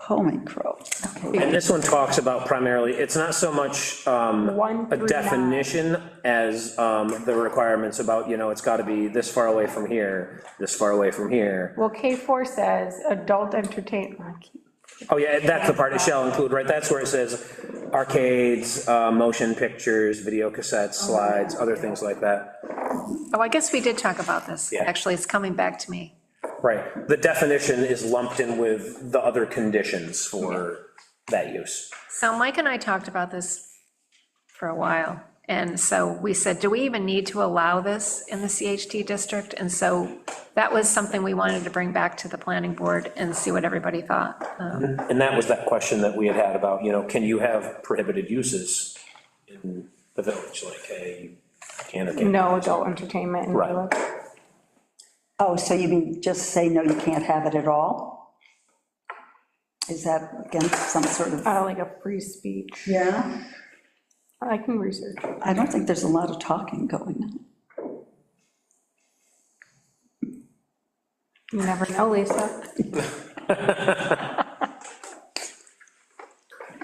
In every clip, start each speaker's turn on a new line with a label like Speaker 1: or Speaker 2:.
Speaker 1: Holy crow. Okay.
Speaker 2: And this one talks about primarily, it's not so much um,
Speaker 3: One
Speaker 2: a
Speaker 3: through
Speaker 2: definition as um, the requirements about, you know, it's got to be this far away from here, this far away from here.
Speaker 3: Well, K4 says adult entertain, I keep-
Speaker 2: Oh, yeah, that's the part it shall include, right? That's where it says arcades, uh, motion pictures, video cassettes, slides, other things like that.
Speaker 4: Oh, I guess we did talk about this.
Speaker 2: Yeah.
Speaker 4: Actually, it's coming back to me.
Speaker 2: Right, the definition is lumped in with the other conditions for that use.
Speaker 4: So Mike and I talked about this for a while, and so we said, do we even need to allow this in the CHT district? And so that was something we wanted to bring back to the planning board and see what everybody thought. Um,
Speaker 2: And that was that question that we had had about, you know, can you have prohibited uses in the village, like, hey, you can or can't?
Speaker 3: no adult entertainment in the
Speaker 2: Right.
Speaker 3: village.
Speaker 1: Oh, so you mean just say, no, you can't have it at all? Is that against some sort of,
Speaker 3: Uh, Like a free speech.
Speaker 1: yeah?
Speaker 3: I can research. it.
Speaker 1: I don't think there's a lot of talking going on.
Speaker 3: You never know, Lisa.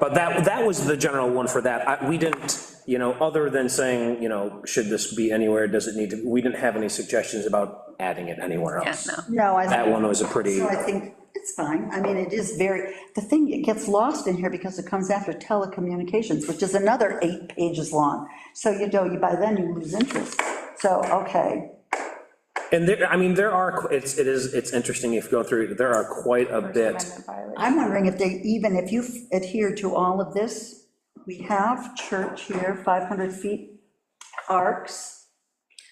Speaker 2: But that, that was the general one for that. I, we didn't, you know, other than saying, you know, should this be anywhere, does it need to, we didn't have any suggestions about adding it anywhere
Speaker 4: Yeah,
Speaker 2: else.
Speaker 4: no.
Speaker 1: No, I.
Speaker 2: That one was a pretty,
Speaker 1: So I think it's fine. I mean, it is very, the thing, it gets lost in here because it comes after telecommunications, which is another eight pages long. So you know, you by then you lose interest. So, okay,
Speaker 2: and there, I mean, there are, qu- it's, it is, it's interesting if you go through, there are quite a bit.
Speaker 3: Amendment violation.
Speaker 1: I'm wondering if they, even if you adhere to all of this, we have church here, 500 feet, arcs.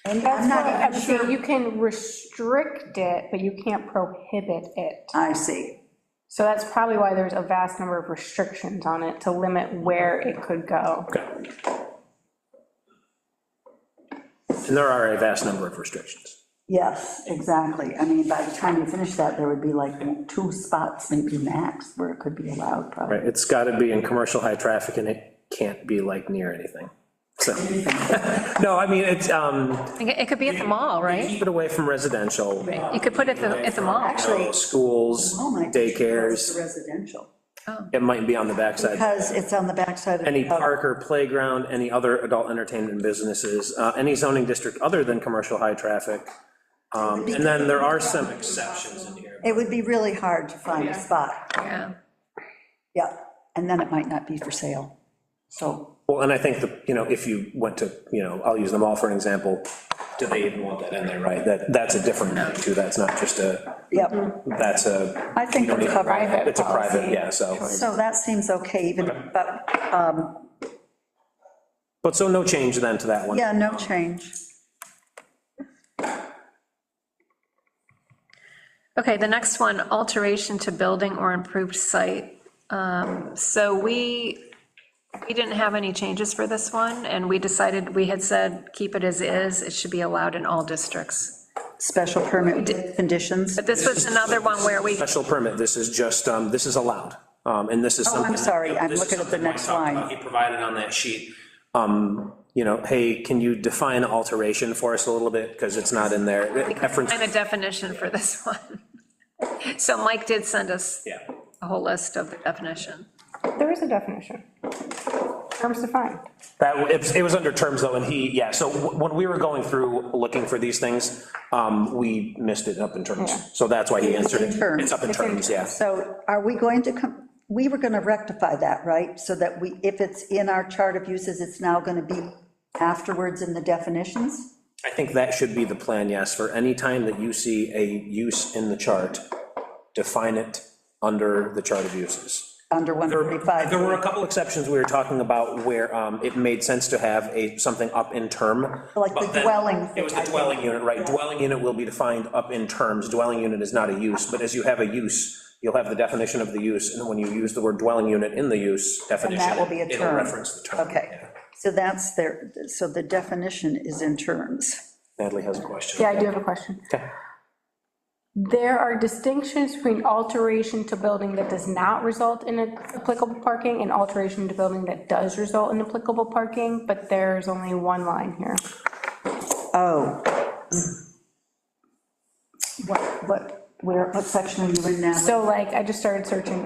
Speaker 1: And I'm
Speaker 3: That's
Speaker 1: not
Speaker 3: why I'm
Speaker 1: even
Speaker 3: saying
Speaker 1: sure-
Speaker 3: you can restrict it, but you can't prohibit it.
Speaker 1: I see.
Speaker 3: So that's probably why there's a vast number of restrictions on it to limit where it could go.
Speaker 2: And there are a vast number of restrictions.
Speaker 1: Yes, exactly. I mean, by the time you finish that, there would be like two spots, maybe max, where it could be allowed, probably.
Speaker 2: Right, it's got to be in commercial high traffic, and it can't be like near anything, so. No, I mean, it's, um,
Speaker 4: I think It it could be at the mall, right?
Speaker 2: keep it away from residential.
Speaker 4: You could put it at the, at the mall.
Speaker 1: Actually-
Speaker 2: Schools,
Speaker 1: Oh my gosh, it's
Speaker 2: daycares,
Speaker 1: Residential.
Speaker 2: it might be on the backside.
Speaker 1: Because it's on the backside of.
Speaker 2: Any park or playground, any other adult entertainment businesses, uh, any zoning district other than commercial high traffic. Um, And then there are some exceptions in here.
Speaker 1: It would be really hard to find a spot,
Speaker 4: Yeah.
Speaker 1: yeah, and then it might not be for sale, so.
Speaker 2: Well, and I think the, you know, if you went to, you know, I'll use them all for an example, do they even want that in there, right? That, that's a different thing too, that's not just a,
Speaker 3: Mm-hmm.
Speaker 1: Yep,
Speaker 2: that's a.
Speaker 1: I think we're covered.
Speaker 2: It's a private, yeah, so.
Speaker 1: So that seems okay even, but, um,
Speaker 2: But so no change then to that one.
Speaker 1: yeah, no change.
Speaker 4: Okay, the next one, alteration to building or improved site. Um, So we, we didn't have any changes for this one, and we decided, we had said, keep it as is, it should be allowed in all districts.
Speaker 1: Special permit with conditions.
Speaker 4: But this was another one where we,
Speaker 2: Special permit, this is just, um, this is allowed, um, and this is
Speaker 1: Oh,
Speaker 2: something.
Speaker 1: I'm sorry, I'm
Speaker 2: this is
Speaker 1: looking at the
Speaker 2: something Mike
Speaker 1: next
Speaker 2: talked about.
Speaker 1: line.
Speaker 2: He provided on that sheet, um, you know, hey, can you define alteration for us a little bit, because it's not in there. Reference,
Speaker 4: find a definition for this one. So Mike did send us
Speaker 2: yeah.
Speaker 4: a whole list of the definition.
Speaker 3: There is a definition. Terms defined.
Speaker 2: That, it was- it was under terms though, and he, yeah, so wh- when we were going through, looking for these things, um, we missed it up in terms,
Speaker 3: Yeah.
Speaker 2: so that's why he answered it.
Speaker 1: in terms.
Speaker 2: It's up in
Speaker 3: It's in
Speaker 2: terms, yeah.
Speaker 1: So are we going to come, we were gonna rectify that, right? So that we, if it's in our chart of uses, it's now gonna be afterwards in the definitions?
Speaker 2: I think that should be the plan, yes, for any time that you see a use in the chart, define it under the chart of uses.
Speaker 1: Under 135.
Speaker 2: There were a couple exceptions we were talking about where um, it made sense to have a, something up in term.
Speaker 1: Like the
Speaker 2: but then-
Speaker 1: dwelling
Speaker 2: It was the
Speaker 1: thing, I
Speaker 2: dwelling unit, right, dwelling unit will be defined up in terms, dwelling unit is not a use, but as you have a use, you'll have the definition of the use, and when you use the word dwelling unit in the use definition.
Speaker 1: will be a
Speaker 2: It'll
Speaker 1: term.
Speaker 2: reference the term.
Speaker 1: Okay,
Speaker 2: yeah.
Speaker 1: so that's their, so the definition is in terms.
Speaker 2: Natalie has a question.
Speaker 3: Yeah, I do have a question. There are distinctions between alteration to building that does not result in applicable parking and alteration to building that does result in applicable parking, but there's only one line here.
Speaker 1: Oh. What, what, where, what section are you in now?
Speaker 3: So like, I just started searching